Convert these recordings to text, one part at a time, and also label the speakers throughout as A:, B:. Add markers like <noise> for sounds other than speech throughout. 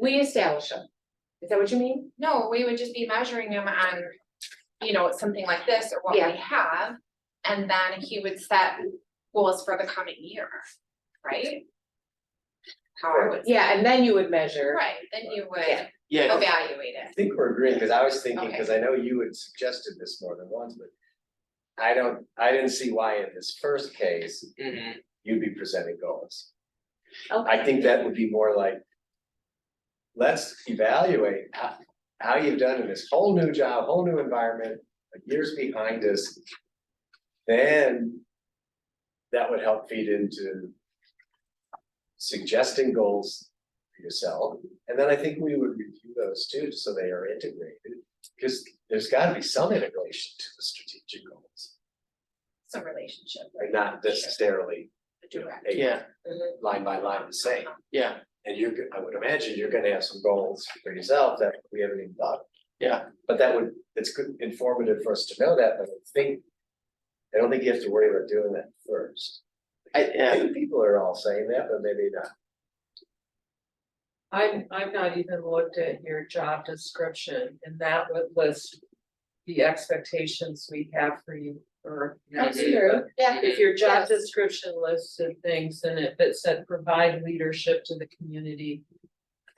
A: We establish them. Is that what you mean?
B: No, we would just be measuring him on, you know, something like this or what
A: Yeah.
B: we have. And then he would set goals for the coming year, right? How I would.
A: Yeah, and then you would measure.
B: Right, then you would
A: Yeah.
C: Yeah, I
B: evaluate it.
C: think we're agreeing, because I was thinking, because I know you had suggested this more than once, but. I don't, I didn't see why in this first case,
D: Mm-hmm.
C: you'd be presenting goals. I think that would be more like. Let's evaluate how, how you've done in this whole new job, whole new environment, like years behind us. Then. That would help feed into. Suggesting goals for yourself, and then I think we would review those too, so they are integrated. Cause there's gotta be some integration to the strategic goals,
B: Some relationship.
C: and not necessarily, you know,
B: Direct.
C: a
E: Yeah,
A: Mhm.
C: line by line the same.
E: yeah,
C: And you're, go- I would imagine you're gonna have some goals for yourself that we haven't even thought. of.
E: Yeah.
C: But that would, it's good informative for us to know that, but I think, I don't think you have to worry about doing that first.
E: I,
C: I
E: yeah,
C: think people are all saying that, but maybe not.
D: I'm, I've not even looked at your job description and that would list the expectations we have for you or.
A: That's true, yeah.
D: If your job
A: Yes.
D: description listed things and if it said provide leadership to the community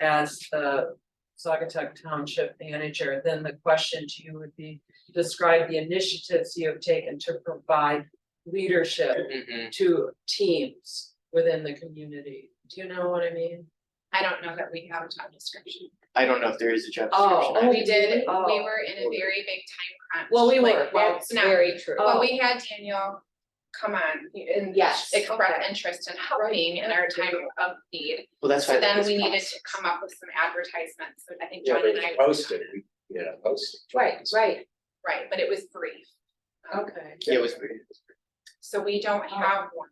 D: as the Sagatuck Township Manager, then the question to you would be, describe the initiatives you have taken to provide leadership
E: mhm.
D: to teams within the community. Do you know what I mean?
B: I don't know that we have a job description.
E: I don't know if there is a job
D: Oh,
E: description.
D: oh,
E: I-
B: We did, we
D: Oh.
B: were in a very big time crunch.
A: Well, we
B: like,
A: were, that's
B: That's not,
A: very true.
B: but we had Daniel come on
A: And yes.
B: express interest in helping in our time of need.
E: Well, that's why.
B: So then we needed to come up with some advertisements, so I think
C: Yeah,
B: John
C: but
B: and I.
C: it's posted, we, you know, posted.
A: Oh, Right, right.
B: Right, but it was brief,
D: Okay.
E: Yeah, it was pretty.
B: so we don't have one,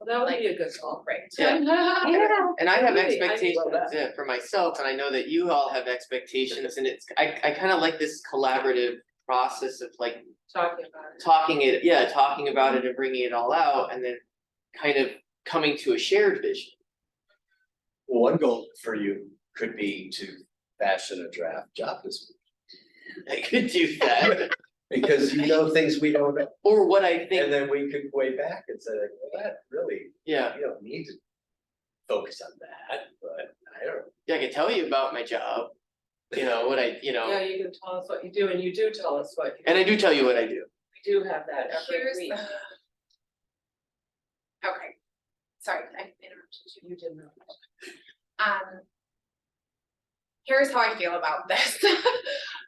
D: Well, that would be a good call.
B: right?
E: Yeah.
A: Yeah.
E: And I have
D: Really? I didn't
E: expectations
D: know that.
E: yeah, for myself, and I know that you all have expectations, and it's, I, I kind of like this collaborative process of like
D: Talking about it.
E: talking it, yeah, talking about it and bringing it all out, and then kind of coming to a shared vision.
C: One goal for you could be to fashion a draft job description,
E: I could do
D: <laughs>
E: that,
C: because you know things we don't know,
E: or what I
C: and
E: think,
C: then we could weigh back and say, like, well, that really,
E: yeah,
C: you don't need to focus on that, but I don't.
E: yeah, I could tell you about my job, you know, what I, you
D: Yeah,
E: know,
D: you can tell us what you do and you do tell us what you do.
E: and I do tell you what I do.
D: We do have that every
B: <laughs> Here's
D: week.
B: the- Okay, sorry, I interrupted you.
D: You didn't know.
B: Um. Here's how I feel about this. <laughs>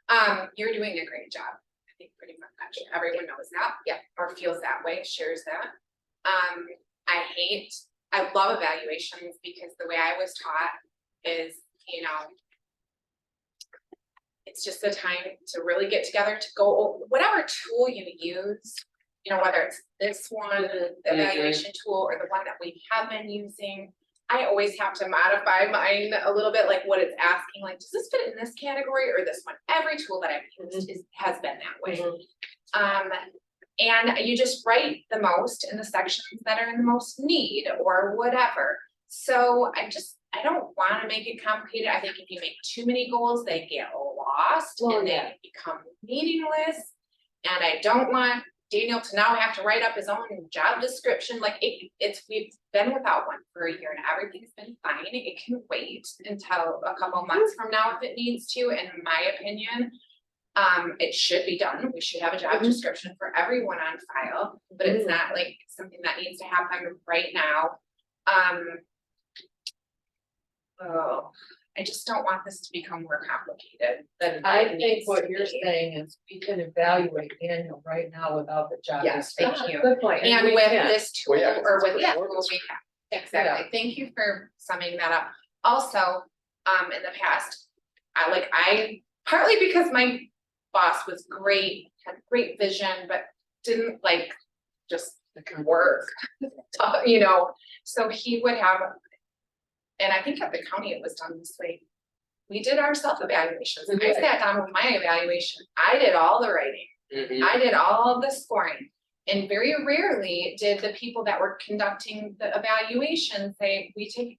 B: Um, you're doing a great job. I think pretty much everyone knows that.
A: Yeah.
B: Or feels that way, shares that. Um, I hate, I love evaluations because the way I was taught is, you know. It's just the time to really get together to go, o- whatever tool you use, you know, whether it's this one, the
E: Mhm.
B: evaluation tool, or the one that we have been using. I always have to modify mine a little bit, like what it's asking, like, does this fit in this category or this one? Every tool that I've used is, has been that way. Um, and you just write the most in the sections that are in the most need or whatever. So I just, I don't wanna make it complicated. I think if you make too many goals, they get lost
A: Well,
B: and
A: yeah.
B: they become meaningless. And I don't want Daniel to now have to write up his own job description, like it, it's, we've been without one for a year and everything's been fine. It can wait until a couple months from now if it needs to, in my opinion. Um, it should be done. We should have a job
D: Mm-hmm.
A: Mhm.
B: description for everyone on file, but it's not like something that needs to happen right now. Um. Oh, I just don't want this to become more complicated than. it
D: I think
B: needs
D: what
B: to
D: you're
B: be.
D: saying is we can evaluate Daniel right now without the job.
B: Yes, thank
D: description.
B: you.
D: Good point.
B: And
D: we
B: with
D: can.
B: this tool
C: Well, yeah, 'cause
B: or
C: it's
B: with
C: what
B: that
C: the
B: tool
C: ordinance
B: we have, exactly, thank you for summing that up. Also, um, in the past, I like, I, partly because my boss was great, had great vision, but didn't like just work, <laughs> uh, you know, so he would have. And I think at the county it was done this way. We did our self-evaluations, I
D: Right.
B: sat down with my evaluation, I did all the writing.
D: Mm-hmm.
E: Mhm.
B: I did all of the scoring. And very rarely did the people that were conducting the evaluation say, we take